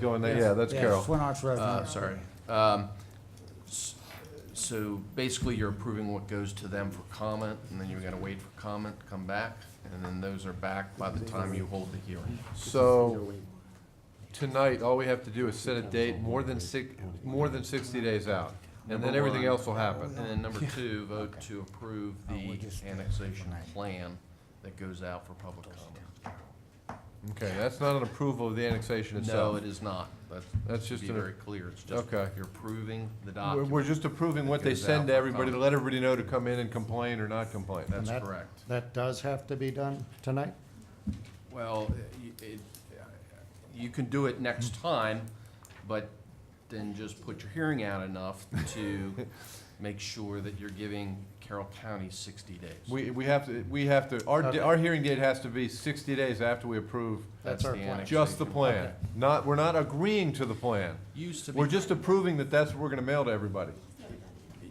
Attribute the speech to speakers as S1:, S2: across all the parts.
S1: Going there, yeah, that's
S2: Yeah,
S1: Carol.
S2: Twin Arch Road.
S3: Uh,
S2: North.
S3: sorry. Um, s- So basically, you're approving what goes to them for comment, and then you're gonna wait for comment, come back, and then those are back by the time you hold the hearing.
S1: So, tonight, all we have to do is set a date more than six, more than sixty days out, and then
S3: Number
S1: everything
S3: one.
S1: else will happen.
S3: And then number two, vote to approve
S2: Oh, we're
S3: the
S2: just-
S3: annexation
S2: right.
S3: plan that goes out for public comment.
S1: Okay, that's not an approval of the annexation
S3: No,
S1: itself.
S3: it is not. That's,
S1: um, That's
S3: to
S1: just
S3: be
S1: an-
S3: very clear, it's just,
S1: Okay.
S3: you're approving the
S1: We're, we're
S3: document.
S1: just approving what they
S3: Goes out
S1: send to
S3: for
S1: everybody, to
S3: comment.
S1: let everybody know to come in and complain or not complain.
S3: That's
S4: that-
S3: correct.
S4: That does have to be done tonight?
S3: Well, it- it, you can do it next
S4: Hmm.
S3: time, but then just put your hearing out enough to make sure that you're giving Carroll County sixty days.
S1: We, we have to, we have to, our,
S4: Okay.
S1: our hearing date has to be sixty days after we approve
S4: That's our
S3: the
S4: plan.
S3: annexation.
S1: just the plan. Not, we're not agreeing to the plan.
S3: Used to be,
S1: We're
S3: it
S1: just approving that that's what we're gonna mail to everybody.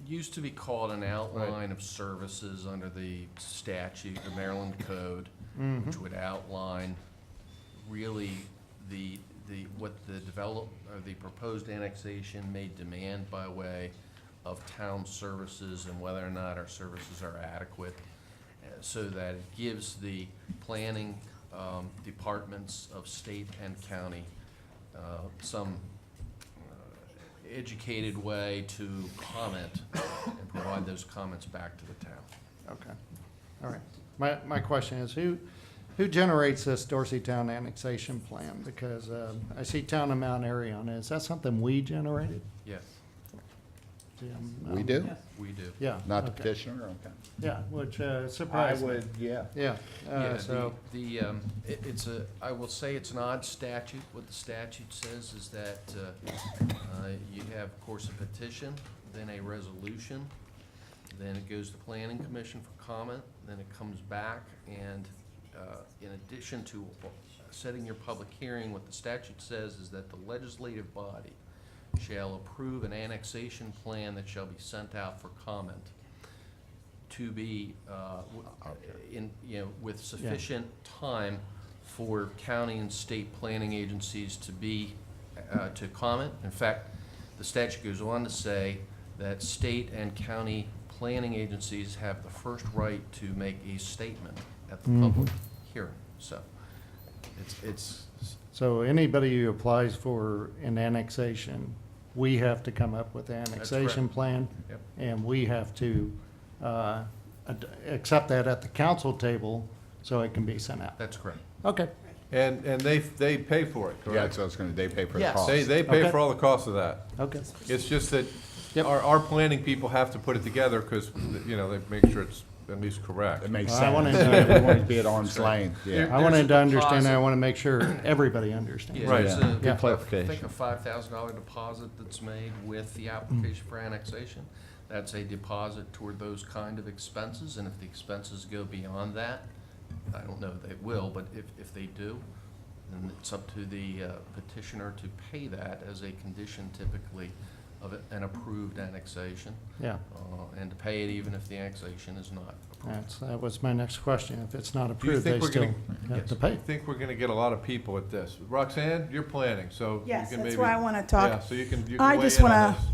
S3: used to be called an outline of services under the statute, the Maryland Code, which would outline really the, the, what the develop, or the proposed annexation may demand by way of town services and whether or not our services are adequate, uh, so that it gives the planning um, departments of state and county uh, some uh, educated way to comment and provide those comments back to the town.
S4: Okay, all right. My, my question is, who, who generates this Dorsey Town annexation plan? Because um, I see Town of Mount Airy on it. Is that something we generated?
S3: Yes,
S4: Jim?
S5: We
S4: Um,
S5: do?
S3: we do.
S4: Yeah.
S5: Not the
S4: okay.
S5: petitioner, okay.
S4: Yeah, which uh,
S5: I
S4: surprised me.
S5: would, yeah.
S4: Yeah, uh,
S3: Yeah, the,
S4: so,
S3: the, um, it, it's a, I will say it's an odd statute. What the statute says is that, uh, uh, you have, of course, a petition, then a resolution, then it goes to planning commission for comment, then it comes back, and, uh, in addition to setting your public hearing, what the statute says is that the legislative body shall approve an annexation plan that shall be sent out for comment to be, uh, w- in, you know, with sufficient time for county and state planning agencies to be, uh, to comment. In fact, the statute goes on to say that state and county planning agencies have the first right to make a statement at the public hearing. So it's, it's,
S4: so anybody who applies for an annexation, we have to come up with the annexation
S3: correct.
S4: plan.
S3: Yep.
S4: And we have to uh, ad- accept that at the council table so it can be sent out.
S3: that's correct.
S4: Okay,
S1: And, and they, they pay for it,
S5: Yeah,
S1: correct?
S5: that's what I was gonna, they pay for the
S4: Yes.
S5: cost.
S1: They, they pay
S4: Okay.
S1: for all the costs of that.
S4: okay.
S1: It's just that
S4: Yep.
S1: our, our planning people have to put it together because, you know, they make sure it's at least correct.
S5: It makes
S4: Well, I wanted
S5: sense.
S4: to-
S5: We want to be at arm's length, yeah.
S4: I
S3: There's a
S4: wanted to understand,
S3: deposit.
S4: I want to make sure everybody understands.
S3: Yeah, it's
S5: Right.
S3: a- I
S4: Good
S3: think
S5: clarification.
S3: a five thousand dollar deposit that's made with the application for annexation, that's a deposit toward those kind of expenses, and if the expenses go beyond that, I don't know if they will, but if, if they do, then it's up to the uh, petitioner to pay that as a condition typically of an approved annexation,
S4: Yeah,
S3: uh, and to pay it even if the annexation is not approved.
S4: that's, that was my next question. If it's not
S1: you
S4: approved, they
S1: think we're
S4: still
S1: gonna-
S4: have to
S1: I
S4: pay.
S1: think we're gonna get a lot of people at this. Roxanne, you're planning, so. you
S6: Yes,
S1: can
S6: that's
S1: maybe-
S6: why I want to
S1: Yeah,
S6: talk.
S1: so you can, you can
S6: I
S1: weigh
S6: just
S1: in on
S6: wanna-
S1: this.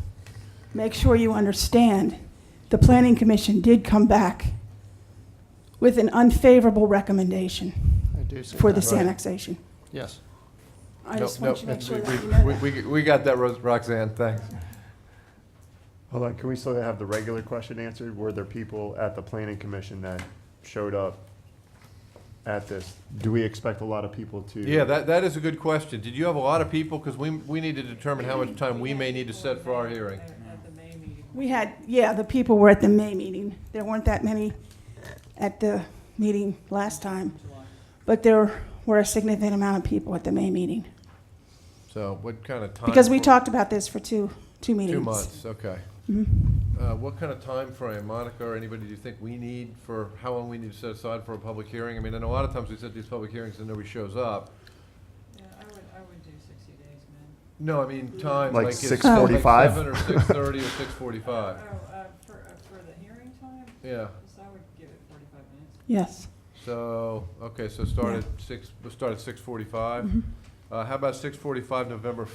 S6: Make sure you understand, the Planning Commission did come back with an unfavorable recommendation
S4: I do see
S6: for
S4: that.
S6: this annexation.
S4: Yes.
S6: I
S1: Nope,
S6: just want you to
S1: nope,
S6: make sure
S1: we-
S6: that you know
S1: we-
S6: that.
S1: We, we got that, Ro- Roxanne, thanks.
S7: Hold on, can we still have the regular question answered? Were there people at the planning commission that showed up at this? Do we expect a lot of people to?
S1: Yeah, that, that is a good question. Did you have a lot of people? Because we, we need to determine how much time we may need to set for our hearing.
S6: We had, yeah, the people were at the May meeting. There weren't that many at the meeting last time. But there were a significant amount of people at the May meeting.
S1: So what kind of time?
S6: Because we
S1: for-
S6: talked about this for two, two meetings.
S1: Two
S6: Mm-hmm.
S1: months, okay. Uh, What kind of time frame, Monica, or anybody do you think we need for, how long we need to set aside for a public hearing? I mean, and a lot of times we set these public hearings and nobody shows up.
S8: Yeah, I would, I would do sixty days, man.
S1: No, I mean, time,
S7: Like
S1: like it's
S7: 6:45?
S1: Seven or six-thirty or six-forty-five,
S8: Oh, uh, for, uh, for the hearing time,
S1: yeah.
S8: so I would give it forty-five minutes.
S6: Yes. Mm-hmm.
S1: So, okay, so start at six, we'll start at six forty-five, Uh, How about 6:45, November